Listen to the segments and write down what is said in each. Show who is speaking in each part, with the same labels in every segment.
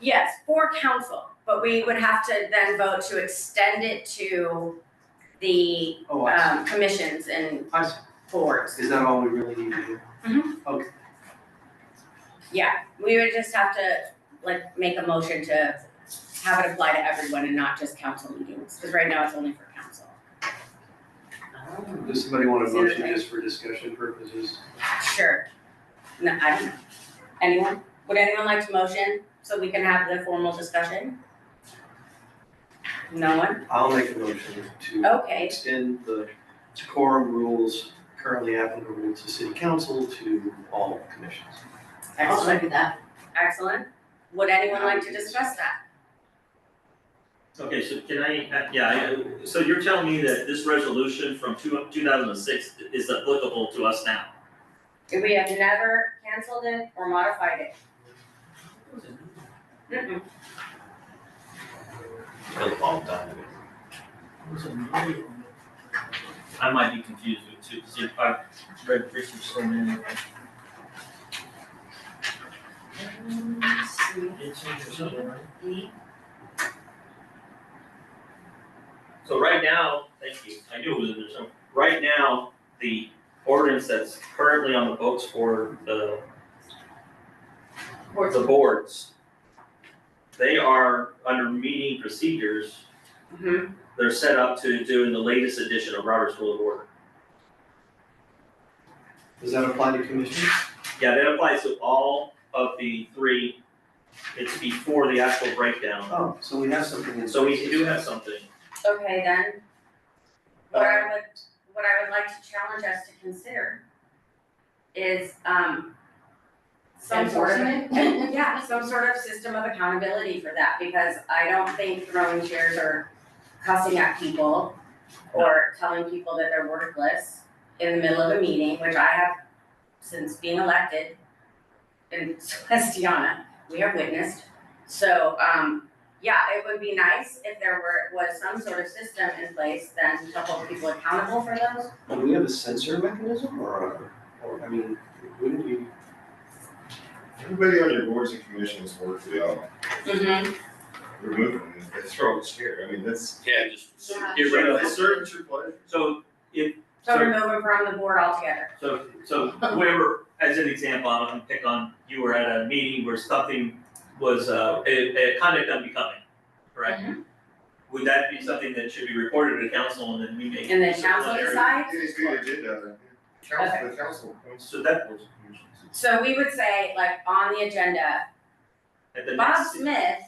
Speaker 1: Yes, for council, but we would have to then vote to extend it to the
Speaker 2: Oh, I
Speaker 1: um commissions and
Speaker 2: see, I see,
Speaker 1: boards.
Speaker 2: is that all we really need to do?
Speaker 1: Yeah, we would just have to like make a motion to have it apply to everyone and not just council meetings, because right now it's only for council.
Speaker 2: Does somebody want a
Speaker 1: Is there a
Speaker 2: motion
Speaker 1: thing?
Speaker 2: just for discussion purposes?
Speaker 1: Sure. No, I don't know. Anyone? Would anyone like to motion so we can have the formal discussion? No one?
Speaker 2: I'll make a motion to
Speaker 1: Okay,
Speaker 2: extend the decorum rules currently applicable to city council to all commissions.
Speaker 3: I'll
Speaker 1: excellent,
Speaker 3: second that.
Speaker 1: excellent. Would anyone like to discuss that?
Speaker 4: Okay, so can I, uh, yeah, I- so you're telling me that this resolution from two, two thousand and six is applicable to us now?
Speaker 1: We have never canceled it or modified it. Mm-mm.
Speaker 4: I might be confused with two, see, I've read Richard's so many.
Speaker 1: Mm-hmm.
Speaker 4: So right now, thank you, I knew it was in there somewhere. Right now, the ordinance that's currently on the books for the
Speaker 1: Boards.
Speaker 4: the boards, they are under meeting procedures
Speaker 1: Mhm.
Speaker 4: they're set up to do in the latest edition of Robert's Rule of Order.
Speaker 2: Does that apply to commissions?
Speaker 4: Yeah, that applies to all of the three, it's before the actual breakdown,
Speaker 2: Oh, so we have something in.
Speaker 4: so we do have something.
Speaker 1: Okay, then. What I would, what I would like to challenge us to consider is, um, some sort of Yeah, some sort of system of accountability for that, because I don't think throwing chairs or cussing at people or telling people that they're worthless in the middle of a meeting, which I have since being elected and as Deanna, we have witnessed. So, um, yeah, it would be nice if there were, was some sort of system in place then to hold people accountable for those.
Speaker 2: Do we have a censor mechanism or, a- or, I mean, wouldn't we?
Speaker 5: Everybody on your boards and commissions work well, remove them, and throw it here, I mean, that's.
Speaker 4: Yeah, just
Speaker 1: Yeah.
Speaker 4: get rid of
Speaker 5: It's
Speaker 4: it.
Speaker 5: certain true pleasure.
Speaker 4: So if,
Speaker 1: So
Speaker 4: so,
Speaker 1: remove them from the board altogether.
Speaker 4: so, so whoever, as an example, I'm gonna pick on, you were at a meeting where something was, uh, a, a conduct unbecoming, correct?
Speaker 1: Mm-hmm.
Speaker 4: Would that be something that should be reported to council and then we make?
Speaker 1: And then council decides.
Speaker 5: It is the agenda, the council, the council appoints
Speaker 4: So that,
Speaker 5: boards and commissions.
Speaker 1: So we would say, like, on the agenda,
Speaker 4: at the
Speaker 1: Bob
Speaker 4: next,
Speaker 1: Smith,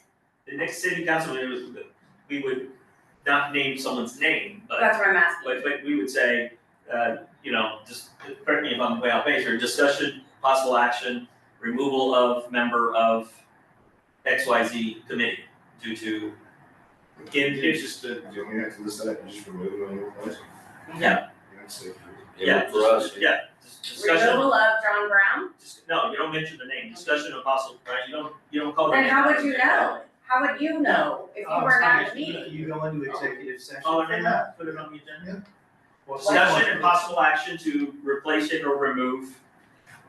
Speaker 4: the next city council, it was, we would not name someone's name, but,
Speaker 1: that's what I'm asking.
Speaker 4: but, but we would say, uh, you know, just, correct me if I'm way off base here, discussion, possible action, removal of member of X Y Z committee due to, again,
Speaker 5: You
Speaker 4: it's just,
Speaker 5: just, uh, you only have to list that and just remove it on your place.
Speaker 4: Yeah.
Speaker 5: That's it.
Speaker 4: yeah,
Speaker 6: For us,
Speaker 4: just- yeah, just discussion,
Speaker 1: Removal of John Brown,
Speaker 4: just, no, you don't mention the name, discussion of possible, right, you don't, you don't call their
Speaker 1: then
Speaker 4: name.
Speaker 1: how would you know? How would you know if you were not in the meeting?
Speaker 2: Oh, You go into executive session
Speaker 4: Oh,
Speaker 2: for
Speaker 4: and then
Speaker 2: that?
Speaker 4: put it on the agenda.
Speaker 2: Well,
Speaker 4: Discussion and possible action to replace it or remove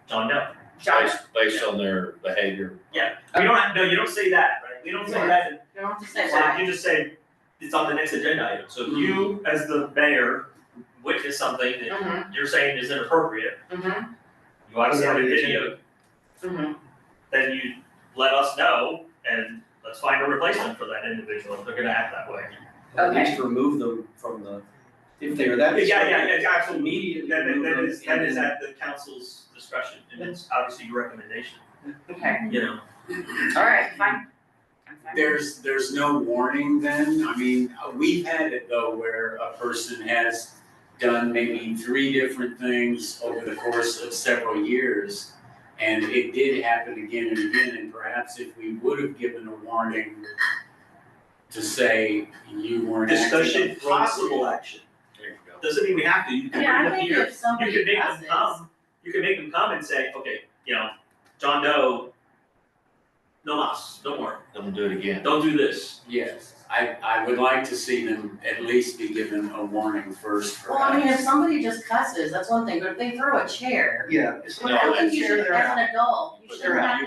Speaker 4: John Doe.
Speaker 1: John,
Speaker 6: based, based on their behavior.
Speaker 4: We don't have, no, you don't say that, right? We don't say that,
Speaker 1: you don't have to say
Speaker 4: so
Speaker 1: why.
Speaker 4: you just say it's on the next agenda item. So if
Speaker 6: Hmm.
Speaker 4: you, as the mayor, witness something that
Speaker 1: Mhm.
Speaker 4: you're saying is inappropriate,
Speaker 1: Mm-hmm,
Speaker 4: you want to see
Speaker 2: Put it
Speaker 4: the
Speaker 2: on the
Speaker 4: video,
Speaker 1: mm-hmm,
Speaker 4: then you let us know and let's find a replacement for that individual if they're gonna act that way.
Speaker 2: At
Speaker 1: Okay.
Speaker 2: least remove them from the, if they were that.
Speaker 4: Yeah, yeah, yeah, absolutely.
Speaker 2: Immediately
Speaker 4: That, that-
Speaker 2: remove
Speaker 4: that
Speaker 2: them
Speaker 4: is, that
Speaker 2: and
Speaker 4: is
Speaker 2: then-
Speaker 4: at the council's discretion and it's obviously your recommendation,
Speaker 1: okay,
Speaker 4: you know?
Speaker 1: alright, fine. I'm fine.
Speaker 7: There's, there's no warning then? I mean, uh, we've had it though where a person has done maybe three different things over the course of several years. And it did happen again and again, and perhaps if we would have given a warning to say you weren't acting
Speaker 4: Discussion, possible action.
Speaker 6: There you go.
Speaker 4: Doesn't mean we have to, you can
Speaker 3: Yeah,
Speaker 4: bring
Speaker 3: I
Speaker 4: them
Speaker 3: think
Speaker 4: here,
Speaker 3: if
Speaker 4: you
Speaker 3: somebody
Speaker 4: can make them
Speaker 3: passes,
Speaker 4: come, you can make them come and say, okay, you know, John Doe. No mas, don't worry,
Speaker 6: Don't do it again.
Speaker 4: don't do this,
Speaker 7: Yes, I, I would like to see them at least be given a warning first
Speaker 3: Well, I mean, if
Speaker 7: perhaps.
Speaker 3: somebody just cusses, that's one thing, but if they throw a chair,
Speaker 2: Yeah, it's
Speaker 3: I
Speaker 4: No,
Speaker 3: don't think you
Speaker 2: chair
Speaker 3: should,
Speaker 2: they're
Speaker 3: as an adult, you
Speaker 2: But
Speaker 3: should
Speaker 2: they're
Speaker 3: have
Speaker 2: out.
Speaker 3: to